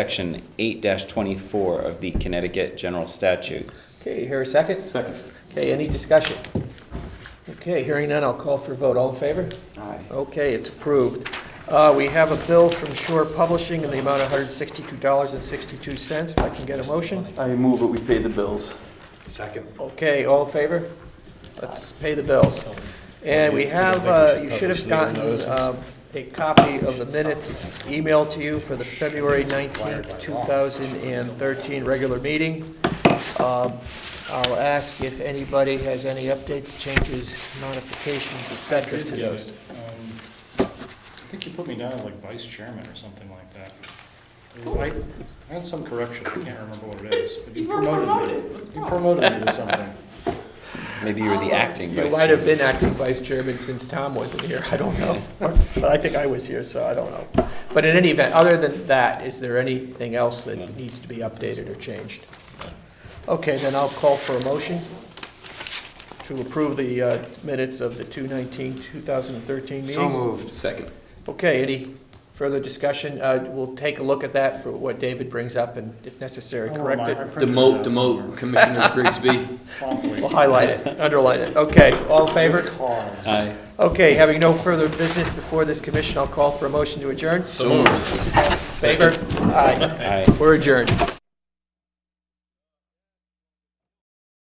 Section 8-24 of the Connecticut General Statutes. Okay, here a second? Second. Okay, any discussion? Okay, hearing none, I'll call for a vote. All in favor? Aye. Okay, it's approved. Uh, We have a bill from Shore Publishing in the amount of $162.62, if I can get a motion. I move that we pay the bills. Second. Okay, all in favor? Let's pay the bills. And we have, uh, you should have gotten um, a copy of the minutes emailed to you for the February 19th, 2013 regular meeting. Um, I'll ask if anybody has any updates, changes, modifications, et cetera. to those. Um, I think you put me down as like vice chairman or something like that. I I had some correction, I can't remember what it is. but You were me. promoted. What's You wrong? promoted me to something. Maybe you were the acting Oh, You vice might have chairman. been acting vice chairman since Tom wasn't here, I don't know. But I think I was here, so I don't know. But in any event, other than that, is there anything else that needs to be updated or changed? Okay, then I'll call for a motion to approve the uh, minutes of the 219, 2013 meeting. Second. Okay, any further discussion? Uh, We'll take a look at that for what David brings up and if necessary, Oh, correct my- I it. printed it Demote, out demote Commissioner Grigsby. promptly. Oh. We'll highlight it, underline it. Okay, all in favor? Cause. Aye. Okay, having no further business before this commission, I'll call for a motion to adjourn. So moved. Favor? Aye. Aye. We're adjourned.